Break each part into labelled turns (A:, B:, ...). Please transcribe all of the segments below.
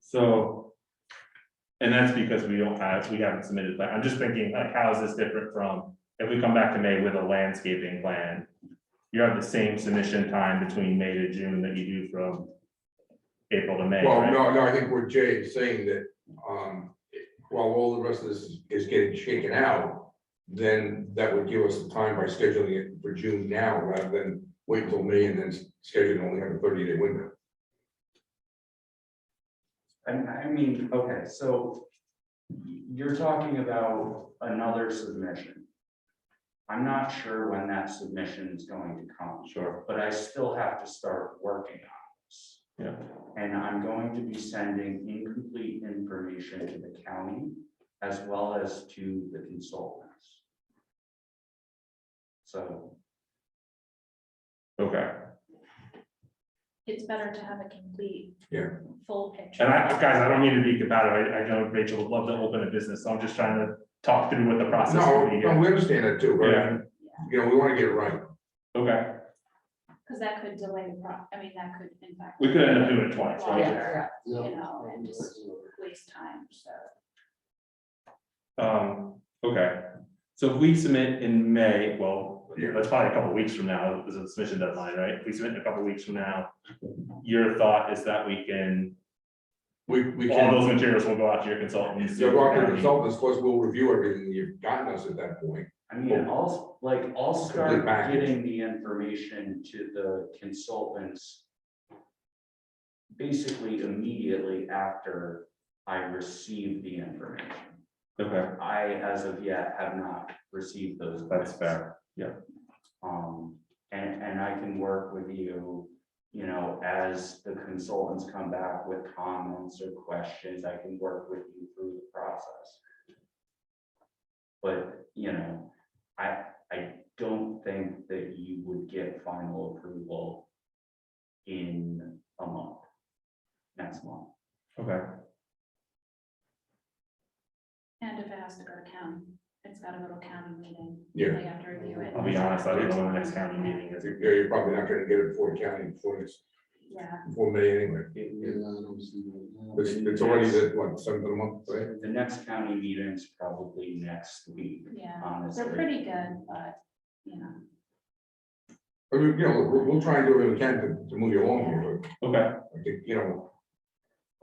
A: So. And that's because we don't have, we haven't submitted, but I'm just thinking, like, how is this different from, if we come back to May with a landscaping plan? You have the same submission time between May to June that you do from April to May,
B: Well,
A: right?
B: no, no, I think what Jay is saying that, um, while all the rest of this is- is getting shaken out, then that would give us the time by scheduling it for June now rather than wait till May and then schedule only have a thirty day window.
C: And I mean, okay, so you're talking about another submission. I'm not sure when that submission is going to come,
A: Sure,
C: but I still have to start working on this.
A: yeah,
C: And I'm going to be sending incomplete information to the county as well as to the consultants. So,
A: okay.
D: it's better to have a complete.
B: Yeah.
D: Full picture.
A: And I, guys, I don't mean to be competitive, I, I know Rachel would love to open a business, so I'm just trying to talk through what the process
B: No,
A: would be.
B: no, we understand that too,
A: Yeah.
B: right? You know, we want to get it right.
A: Okay,
D: Because that could delay the pro, I mean, that could impact.
A: we could end up doing it twice, right?
D: Longer, You know, and just waste time, so.
A: Um, okay, so if we submit in May, well,
B: Yeah.
A: that's probably a couple weeks from now, is the submission deadline, right? If we submit in a couple weeks from now, your thought is that we can,
B: We, we
A: all
B: can,
A: those materials will go out to your consultants.
B: you'll go out to the consultants, of course, we'll review everything you've gotten us at that point.
C: I mean, I'll, like, I'll start
B: Complete package.
C: getting the information to the consultants. Basically immediately after I receive the information.
A: Okay,
C: I, as of yet, have not received those.
A: that's
C: plans.
A: fair,
C: Um, and, and I can work with you, you know, as the consultants come back with comments or questions, I can work with you through the process. But, you know, I, I don't think that you would get final approval in a month, next month.
A: okay,
D: And if it has to go to county, it's gotta go to county meeting.
B: Yeah.
D: They have to review it.
A: I'll be honest, I don't know when the next county meeting is.
B: You know, You're probably not gonna get it before county, before this,
D: Yeah,
B: before May anyway.
C: It-
E: Yeah,
C: it-
E: I don't see that.
B: It's, it's already the, what, seventh of the month, right?
C: The next county meeting is probably next week,
D: yeah,
A: Um,
C: honestly.
D: they're pretty good, but, you know,
B: I mean, you know, we'll, we'll try and do what we can to, to move you along here, but
A: Okay,
B: I think, you know.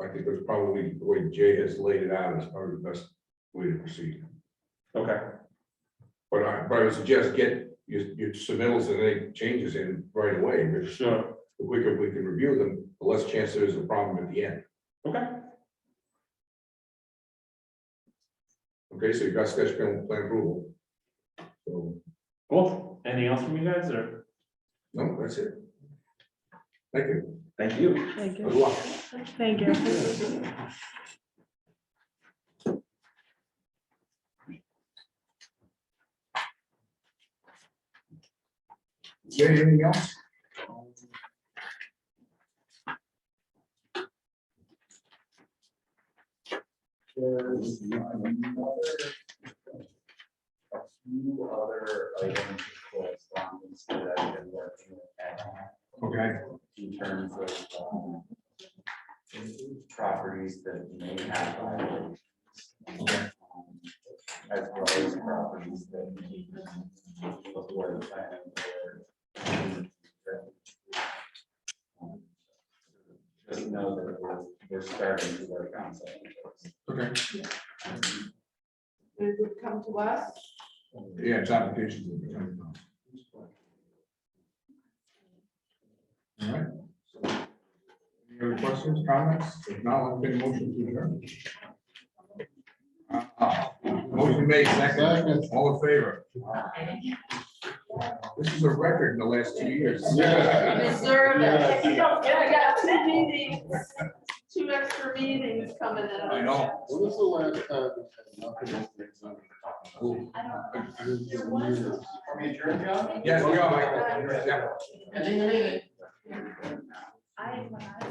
B: I think that's probably the way Jay has laid it out is probably the best way to proceed.
A: okay,
B: But I, but I would suggest get your, your submittals and any changes in right away, because
A: sure,
B: the quicker we can review them, the less chance there is a problem at the end.
A: okay,
B: Okay, so you got sketch plan plan approval. So,
A: cool. Anything else from you guys, or?
B: no, that's it. Thank you.
A: Thank you.
F: Thank
B: Good
F: you,
B: luck.
F: thank you.
B: Jay, anything else?
C: There's another- a few other items of correspondence that I've been working with at,
B: Okay.
C: in terms of um, properties that may have violations. um, As well as properties that need before the planning board. um, Just know that we're, we're starting to work on something.
G: It would come to us.
B: Yeah, it's applications. that are coming up. All right. Any other questions, comments? If not, I'll take a motion to adjourn. Uh, uh, Motion made, second, all in favor? This is a record in the last two years.
E: Yeah.
G: Deserve it.
E: Yeah.
G: Yeah, I got two meetings, two extra meetings coming up.
B: I know.
E: When was the last time? we had nothing
B: Cool.
D: I don't.
E: to do? Years and years.
B: Yes, we are, Michael. Yeah.
D: I, when I